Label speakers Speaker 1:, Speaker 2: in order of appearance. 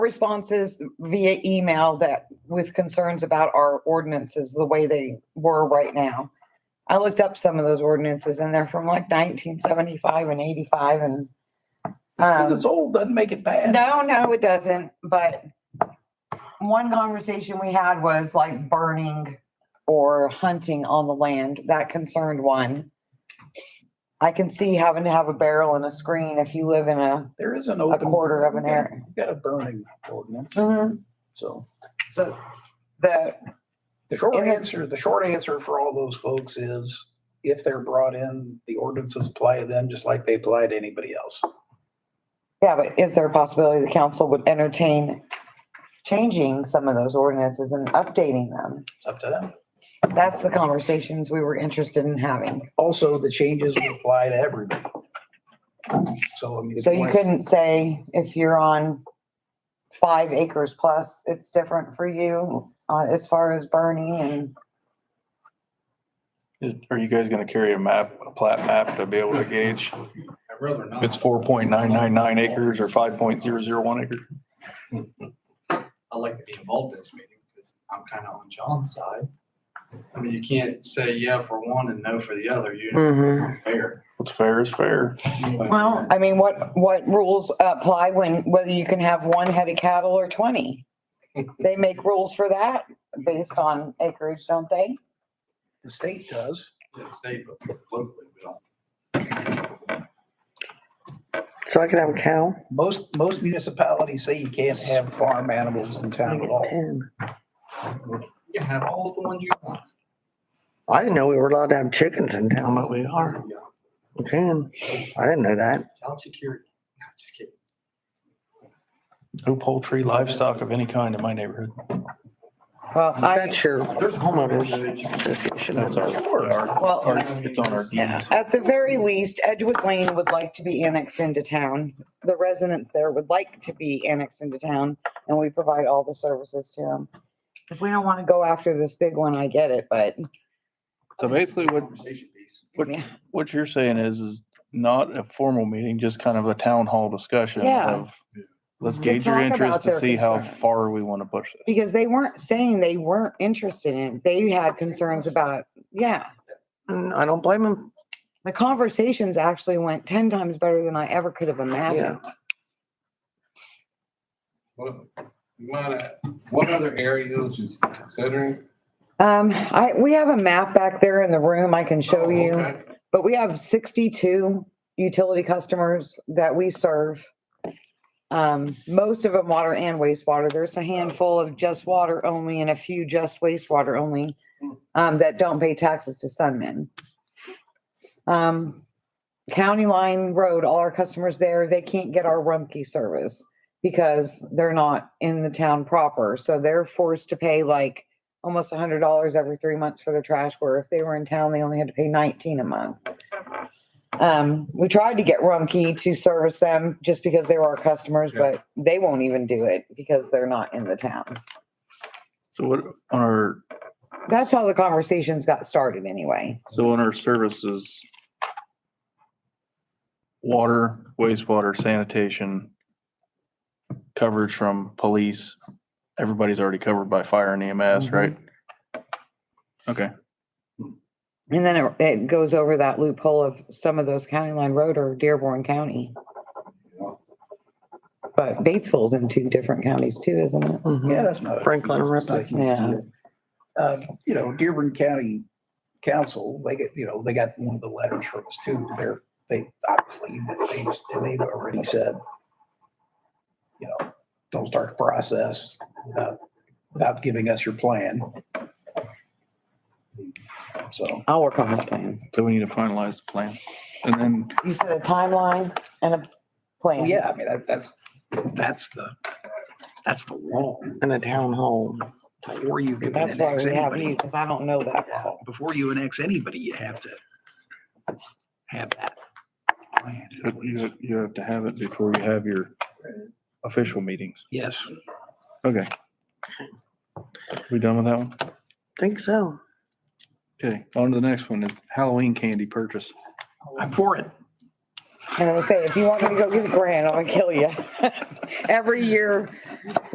Speaker 1: responses via email that with concerns about our ordinances, the way they were right now. I looked up some of those ordinances and they're from like nineteen seventy-five and eighty-five and.
Speaker 2: because
Speaker 1: um,
Speaker 2: it's old, doesn't make it bad.
Speaker 1: No, no, it doesn't, but one conversation we had was like burning or hunting on the land, that concerned one. I can see having to have a barrel and a screen if you live in a,
Speaker 2: There is an
Speaker 1: a
Speaker 2: open. Mm-hmm.
Speaker 1: quarter of an Mm. area.
Speaker 2: We've Got a burning ordinance, so.
Speaker 1: So the,
Speaker 2: The short
Speaker 1: And then-
Speaker 2: answer, the short answer for all those folks is if they're brought in, the ordinances apply to them just like they apply to anybody else.
Speaker 1: yeah, but is there a possibility the council would entertain changing some of those ordinances and updating them?
Speaker 2: It's up to them.
Speaker 1: That's the conversations we were interested in having.
Speaker 2: Also, the changes will apply to everybody. So I mean. if
Speaker 1: So you
Speaker 2: wanna-
Speaker 1: couldn't say if you're on five acres plus, it's different for you uh, as far as burning and
Speaker 3: Are you guys gonna carry a map, a plat map to be able to gauge? if It's four point nine nine nine acres or five point zero zero one acre.
Speaker 4: I'd like to be involved in this meeting because I'm kind of on John's side. I mean, you can't say yeah for one and no for the other.
Speaker 5: Mm-hmm.
Speaker 4: You're fair.
Speaker 3: What's fair is fair.
Speaker 1: well, I mean, what, what rules apply when, whether you can have one head of cattle or twenty? They make rules for that based on acreage, don't they?
Speaker 2: The state does.
Speaker 4: It's safe, but locally we don't.
Speaker 5: So I could have a cow
Speaker 2: Most, most municipalities say you can't have farm animals in town at all.
Speaker 5: and
Speaker 4: You can have all the ones you want.
Speaker 5: I didn't know we were allowed to have chickens in town, but we are.
Speaker 4: Yeah.
Speaker 5: We can. I didn't know that.
Speaker 4: Child security. No, just kidding.
Speaker 3: No poultry, livestock of any kind in my neighborhood.
Speaker 1: Well, I,
Speaker 5: That's your
Speaker 4: There's
Speaker 5: homeowners association.
Speaker 3: That's our, our,
Speaker 1: well,
Speaker 3: our- it's on our deeds.
Speaker 1: at the very least, Edgewood Lane would like to be annexed into town. The residents there would like to be annexed into town and we provide all the services to them. If we don't want to go after this big one, I get it, but
Speaker 3: So basically what-
Speaker 4: Conversation piece.
Speaker 3: What, what you're saying is, is not a formal meeting, just kind of a town hall discussion
Speaker 1: Yeah.
Speaker 3: of, let's
Speaker 1: To
Speaker 3: gauge your
Speaker 1: talk
Speaker 3: interest
Speaker 1: about
Speaker 3: to
Speaker 1: their
Speaker 3: see how
Speaker 1: concerns.
Speaker 3: far we want to push this.
Speaker 1: Because they weren't saying they weren't interested in, it. they had concerns about, yeah.
Speaker 5: Mm, I don't blame them.
Speaker 1: The conversations actually went ten times better than I ever could have imagined.
Speaker 6: What, what,
Speaker 4: uh,
Speaker 6: what other areas you considering?
Speaker 1: Um, I, we have a map back there in the room I can show
Speaker 6: Oh,
Speaker 1: you,
Speaker 6: okay.
Speaker 1: but we have sixty-two utility customers that we serve. Um, most of them water and wastewater. There's a handful of just water only and a few just wastewater only um, that don't pay taxes to Sunman. Um, County Line Road, all our customers there, they can't get our Rumpke service because they're not in the town proper. So they're forced to pay like almost a hundred dollars every three months for their trash, where if they were in town, they only had to pay nineteen a month. Um, we tried to get Rumpke to service them just because they were our customers,
Speaker 6: Yeah.
Speaker 1: but they won't even do it because they're not in the town.
Speaker 3: So what, on our
Speaker 1: That's how the conversations got started anyway.
Speaker 3: So in our services, water, wastewater, sanitation, coverage from police, everybody's already covered by fire and EMS, right? Okay,
Speaker 1: And then it, it goes over that loophole of some of those county line road or Dearborn County. But Batesville's in two different counties too, isn't it?
Speaker 5: Mhm.
Speaker 2: Yeah, that's not. a-
Speaker 5: Franklin and
Speaker 2: it's not a
Speaker 5: Ripley.
Speaker 2: huge
Speaker 1: Yeah.
Speaker 2: deal. Uh, you know, Dearborn County Council, they get, you know, they got one of the letters from us too. They're, they obviously, they've, they've already said, you know, don't start the process without, without giving us your plan. So
Speaker 1: I'll work on that plan.
Speaker 3: so we need to finalize the plan. And then
Speaker 1: You said a timeline and a
Speaker 2: well,
Speaker 1: plan.
Speaker 2: yeah, I mean, that, that's, that's the, that's the law.
Speaker 5: In a town hall.
Speaker 2: Before you can
Speaker 1: That's why
Speaker 2: annex
Speaker 1: we have you,
Speaker 2: anybody,
Speaker 1: because I don't know that well.
Speaker 2: before you annex anybody, you have to have that plan.
Speaker 3: you- you, you have to have it before you have your official meetings.
Speaker 2: Yes.
Speaker 3: Okay. We done with that one?
Speaker 5: Think so.
Speaker 3: Okay, on to the next one is Halloween candy purchase.
Speaker 2: I'm for it.
Speaker 1: And I'm gonna say, if you want me to go get a grant, I'm gonna kill you. Every year,